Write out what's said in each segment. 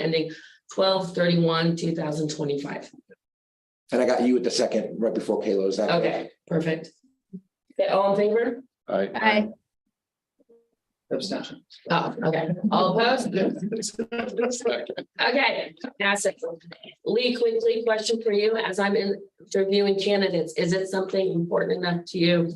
ending 12 31 two thousand twenty-five. And I got you at the second, right before Kayla, is that? correct? Okay, perfect. Okay, all in favor? Aye. Aye. Abstention. Oh, okay, all opposed? Second. Okay, that's it. Lee, quickly, question for you, as I'm in interviewing candidates, is it something important enough to you?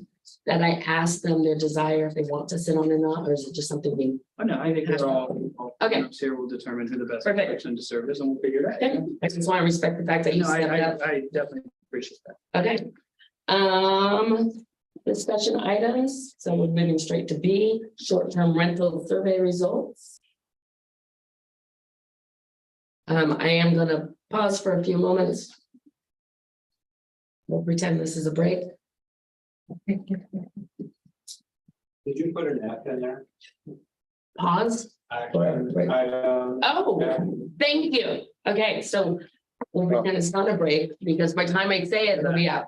That I ask them their desire if they want to sit on or not, or is it just something we? Oh, no, I think they're all. all Okay. groups Here will determine who the best Perfect. person to serve is and we'll figure it Okay, out. I just want to respect the fact that you No, I, stepped I, up, I definitely appreciate that. okay? Um, discussion items, so we're moving straight to B, short-term rental survey results. Um, I am gonna pause for a few moments. We'll pretend this is a break. Did you put an F in there? Pause. I, Right. I, um, Oh, thank you. Okay, so we're gonna start a break because by the time I say it, it'll be out.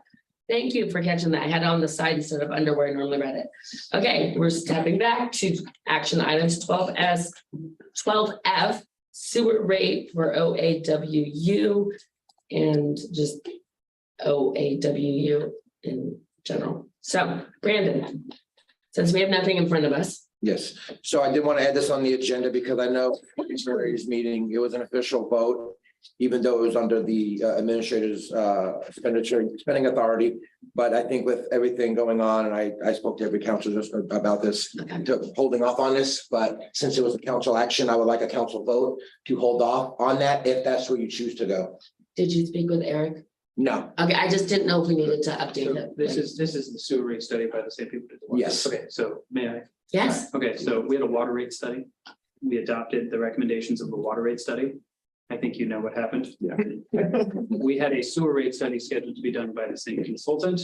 Thank you for catching that. I had it on the side instead of underwear. I normally read it. Okay, we're stepping back to action items twelve S, twelve F sewer rate for O A W U and just O A W U in general. So Brandon, since we have nothing in front of us. Yes, so I did want to add this on the agenda because I know it's various meeting, it was an official vote. Even though it was under the uh, administrator's uh, expenditure, spending authority. But I think with everything going on, and I, I spoke to every council just about this, Okay. to holding off on this. But since it was a council action, I would like a council vote to hold off on that if that's where you choose to go. Did you speak with Eric? No, Okay, I just didn't know if we needed to So update it. this is, this is the sewer rate study by the same people. that did the water. Yes. Okay, so may I? Yes, Okay, so we had a water rate study. We adopted the recommendations of the water rate study. I think you know what happened. Yeah. We had a sewer rate study scheduled to be done by the same consultant.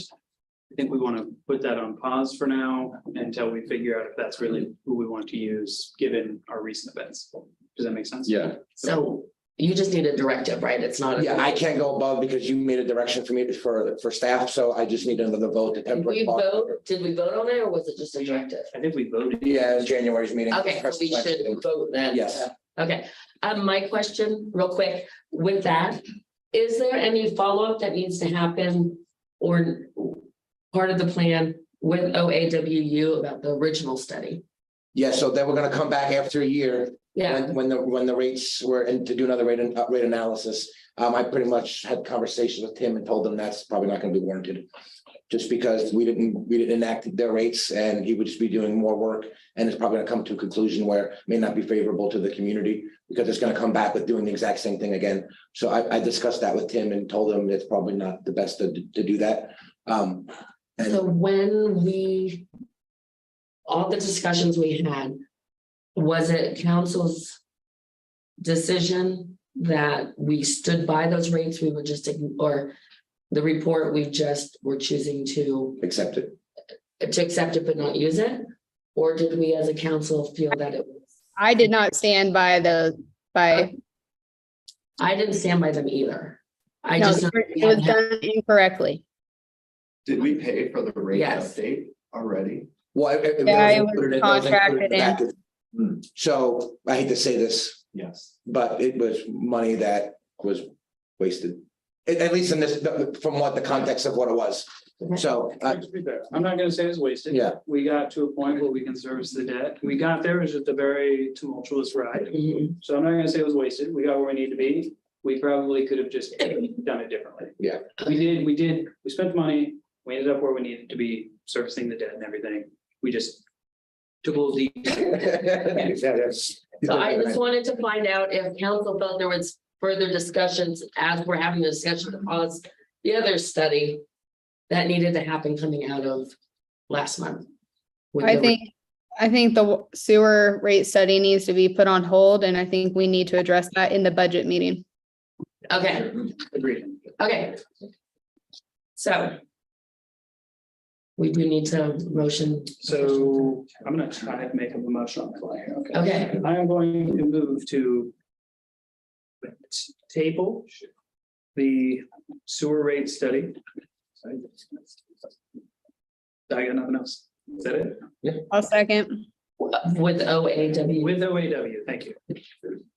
I think we want to put that on pause for now until we figure out if that's really who we want to use, given our recent events. Does that make sense? Yeah, so you just need a directive, right? It's not. a- yeah, I can't go above because you made a direction for me for, for staff, so I just need another vote to Did we temporarily. vote, did we vote on it or was it just a directive? I think we voted. Yeah, in January's meeting. Okay, so we should vote then. Yes. Okay, um, my question, real quick, with that, is there any follow-up that needs to happen? Or part of the plan with O A W U about the original study? Yeah, so then we're gonna come back after a year, Yeah, when, when the, when the rates were, and to do another rate, an- uh, rate analysis. Um, I pretty much had conversations with Tim and told him that's probably not gonna be warranted. Just because we didn't, we didn't enact their rates and he would just be doing more work. And it's probably gonna come to a conclusion where it may not be favorable to the community, because it's gonna come back with doing the exact same thing again. So I, I discussed that with Tim and told him it's probably not the best to, to do that. Um, so when we. All the discussions we had, was it council's? Decision that we stood by those rates, we were just, ign- or the report, we just were choosing to, accept it. to accept it but not use it? Or did we as a council feel that it was, I did not stand by the, by, I didn't stand by them either. I no, just, it was done incorrectly. did we pay for the rate Yes. update already? Well. it- it Yeah, it was included in- it was included in the contracted package. So I hate to say this, Hmm. Yes. but it was money that was wasted. At, at least in this, from what the context of what it was. So, uh, I'm not gonna say it's wasted. Yeah. We got to a point where we can service the debt. We got there, it was just a very tumultuous ride. Mhm. So I'm not gonna say it was wasted. We got where we need to be. We probably could have just done it differently. Yeah. We did, we did, we spent money, we ended up where we needed to be servicing the debt and everything. We just took a little deep. so I just wanted to find out if council felt there was further discussions as we're having the discussion to pause the other study. That needed to happen coming out of last month. with I the- think, I think the sewer rate study needs to be put on hold and I think we need to address that in the budget meeting. Okay, Agreed. okay. So. We do need to motion, So I'm gonna try to make a motion on the fly here, okay? okay, I am going to move to table the sewer rate study. I got nothing else. Is that it? I'll second. with O A W. With OAW, thank you.